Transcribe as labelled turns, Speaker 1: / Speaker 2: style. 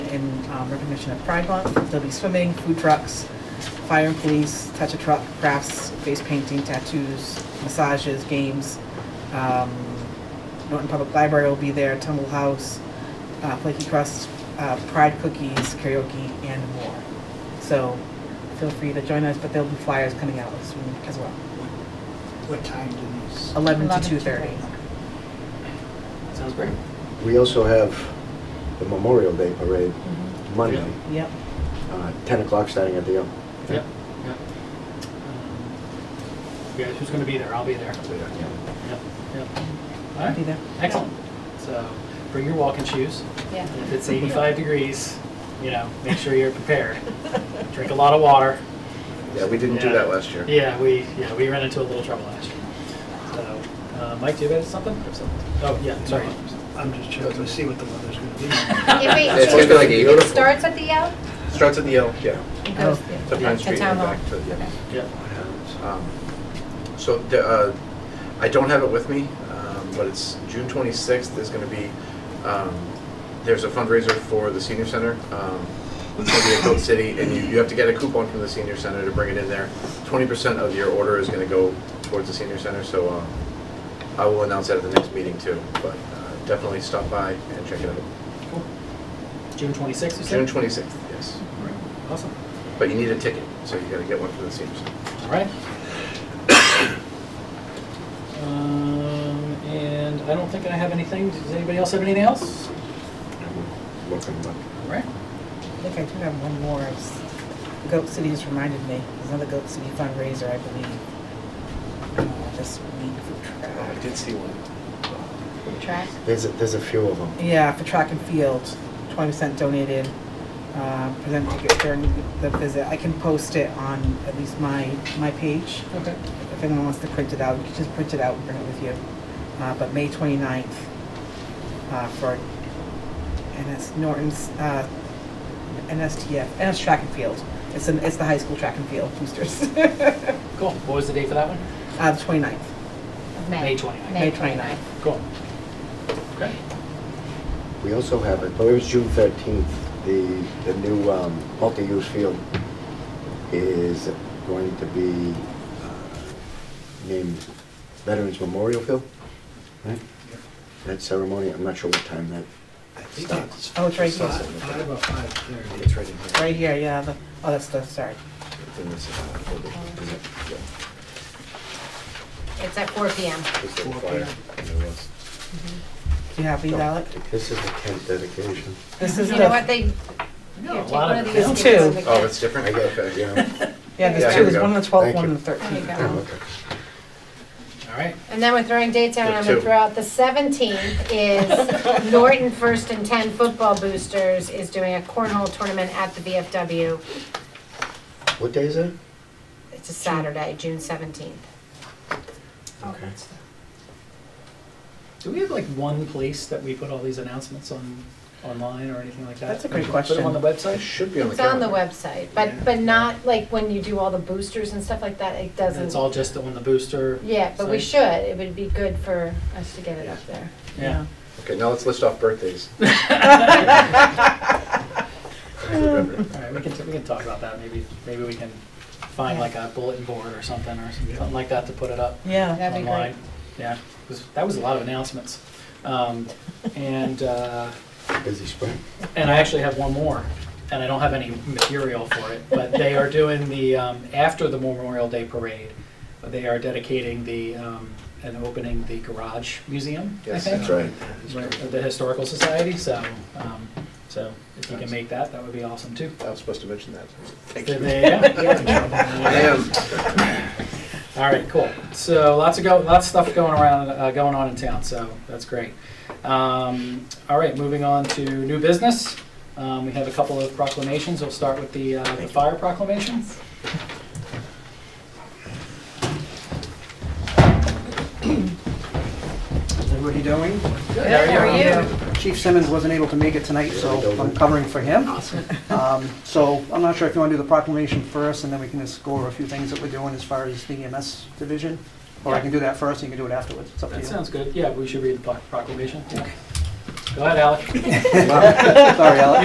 Speaker 1: in um, recognition of Pride Month. There'll be swimming, food trucks, fire and police, touch a truck, crafts, face painting, tattoos, massages, games. Um, Norton Public Library will be there, Tumble House, uh, Flaky Crust, uh, Pride Cookies, karaoke, and more. So feel free to join us, but there'll be flyers coming out soon as well.
Speaker 2: What time do these?
Speaker 1: 11 to
Speaker 3: 11 to
Speaker 1: 2:30.
Speaker 2: Sounds great.
Speaker 4: We also have the Memorial Day Parade
Speaker 5: Mm-hmm.
Speaker 4: Monday,
Speaker 1: Yep.
Speaker 4: uh, 10 o'clock starting at the Elm.
Speaker 2: Yep, yep. Um, You guys, who's gonna be there? I'll be there. Yep, yep. All
Speaker 1: Be
Speaker 2: right,
Speaker 1: there.
Speaker 2: excellent. So bring your walking shoes.
Speaker 3: Yeah.
Speaker 2: And If it's 85 degrees, you know, make sure you're prepared. Drink a lot of water.
Speaker 5: Yeah, we didn't do
Speaker 2: Yeah.
Speaker 5: that last year.
Speaker 2: Yeah, we, yeah, we ran into a little trouble last year. So, uh, Mike, do you have something? Oh, yeah, sorry.
Speaker 6: I'm just checking to see what the weather's gonna be.
Speaker 3: If it-
Speaker 5: It's gonna be like
Speaker 3: if It
Speaker 5: beautiful.
Speaker 3: starts at the L?
Speaker 5: Starts at the L, yeah,
Speaker 3: It
Speaker 1: Oh.
Speaker 3: goes
Speaker 5: to
Speaker 3: there.
Speaker 5: Pine
Speaker 3: To
Speaker 5: Street
Speaker 3: town
Speaker 5: and
Speaker 3: hall.
Speaker 5: back to, yeah.
Speaker 2: Yeah.
Speaker 5: Um, So, the, uh, I don't have it with me, um, but it's June 26th, there's going to be, um, there's a fundraiser for the senior center. Um, It's going to be at Goat City, and you, you have to get a coupon from the senior center to bring it in there. 20% of your order is going to go towards the senior center, so um, I will announce that at the next meeting too, but uh, definitely stop by and check it out.
Speaker 2: Cool. June 26th, you
Speaker 5: June
Speaker 2: said?
Speaker 5: 26th, yes.
Speaker 2: Awesome.
Speaker 5: But you need a ticket, so you got to get one from the senior center.
Speaker 2: All right. Um, And I don't think I have anything. Does anybody else have anything else?
Speaker 4: Welcome back.
Speaker 2: All right.
Speaker 1: I think I do have one more. It's- Goat City has reminded me, there's another Goat City fundraiser, I believe, uh, this week for
Speaker 5: Oh, I
Speaker 1: track.
Speaker 5: did see one.
Speaker 3: Track.
Speaker 4: There's, a- there's a few of them.
Speaker 1: Yeah, for track and field, 20% donated, uh, present ticket during the visit. I can post it on at least my, my page.
Speaker 2: Okay.
Speaker 1: If anyone wants to print it out, you can just print it out and bring it with you. Uh, But May 29th uh, for, and it's Norton's, uh, NSTF, NS Track and Field. It's an, it's the high school track and field boosters. Uh,
Speaker 2: Cool. What was the date for that one?
Speaker 1: the 29th.
Speaker 3: of
Speaker 2: May 29th.
Speaker 1: May
Speaker 3: May
Speaker 1: 29th.
Speaker 3: 29th.
Speaker 2: Cool. Okay.
Speaker 4: We also have, I believe it's June 13th, the, the new um, multi-use field is going to be uh, named Veterans Memorial Field, right? That ceremony, I'm not sure what time that,
Speaker 6: I think
Speaker 4: Stop.
Speaker 6: it's
Speaker 1: Oh, it's right here.
Speaker 6: Five five or five thirty.
Speaker 4: it's right in here.
Speaker 1: Right here, yeah, the, oh, that's the, sorry.
Speaker 4: It's in this, uh, folder. Is it? Yeah.
Speaker 3: It's at 4 PM.
Speaker 4: It's in fire. There was.
Speaker 1: Do you have these, Alec?
Speaker 4: This is the tent dedication.
Speaker 1: This is
Speaker 3: You know what,
Speaker 1: the,
Speaker 3: they, here,
Speaker 2: No, a
Speaker 3: take
Speaker 2: lot
Speaker 3: one
Speaker 2: of
Speaker 3: of
Speaker 2: them.
Speaker 3: these. give it to
Speaker 1: Two.
Speaker 3: the
Speaker 5: Oh,
Speaker 3: kid.
Speaker 5: it's different?
Speaker 4: I get it,
Speaker 5: Okay.
Speaker 4: yeah.
Speaker 1: yeah,
Speaker 5: Yeah,
Speaker 1: there's
Speaker 5: here
Speaker 1: two,
Speaker 5: we
Speaker 1: there's
Speaker 5: go.
Speaker 1: one on the 12th,
Speaker 4: Thank
Speaker 1: one
Speaker 4: you.
Speaker 1: on the 13th.
Speaker 3: There you
Speaker 4: Oh,
Speaker 3: go.
Speaker 4: okay.
Speaker 2: All right.
Speaker 3: And then we're throwing dates out, and I'm gonna
Speaker 5: Two.
Speaker 3: throw out the seventeenth is Norton First and Ten Football Boosters is doing a cornhole tournament at the VFW.
Speaker 4: What day is it?
Speaker 3: It's a Saturday, June seventeenth.
Speaker 4: Okay.
Speaker 2: Do we have like one place that we put all these announcements on, online or anything like that?
Speaker 1: That's a great
Speaker 2: Put them on the
Speaker 5: It
Speaker 2: website?
Speaker 5: should be on the
Speaker 3: It's on the
Speaker 5: calendar.
Speaker 3: website, but, but not like when you do all the boosters and stuff like that, it doesn't.
Speaker 2: It's all just on the booster?
Speaker 3: Yeah, but we
Speaker 2: site?
Speaker 3: should, it would be good for us to get it up there.
Speaker 2: Yeah.
Speaker 5: Okay, now let's list off birthdays. I remember.
Speaker 2: All right, we can, we can talk about that. Maybe, maybe we can find
Speaker 3: Yeah.
Speaker 2: like a bulletin board or something or something like that to put it up.
Speaker 1: Yeah,
Speaker 3: That'd be
Speaker 2: online.
Speaker 3: great.
Speaker 2: Yeah, 'cause that was a lot of announcements. Um, And, uh,
Speaker 4: Busy spring.
Speaker 2: and I actually have one more, and I don't have any material for it, but they are doing the, um, after the Memorial Day Parade, they are dedicating the, um, and opening the Garage Museum, I
Speaker 5: Yes,
Speaker 2: think.
Speaker 5: that's right.
Speaker 2: Right, of the Historical Society, so, um, so if you can make that, that would be awesome too.
Speaker 5: I was supposed to mention that. Thank
Speaker 2: There
Speaker 5: you.
Speaker 2: they are.
Speaker 5: I am.
Speaker 2: All right, cool. So lots of go, lots of stuff going around, uh, going on in town. So that's great. Um, all right, moving on to new business. Um, we have a couple of proclamations. We'll start with the, uh, the fire proclamation.
Speaker 6: Is everybody doing?
Speaker 3: Good, how are you?
Speaker 6: Chief Simmons wasn't able to make it tonight, so I'm covering for him. Um, So I'm not sure if you want to do the proclamation first, and then we can just go over a few things that we're doing as far as the EMS division? Or I can do that first, and you can do it afterwards, it's up to you.
Speaker 2: That sounds good. Yeah, we should read the pro- proclamation. Yeah. Go ahead, Alec.
Speaker 6: Sorry, Alex.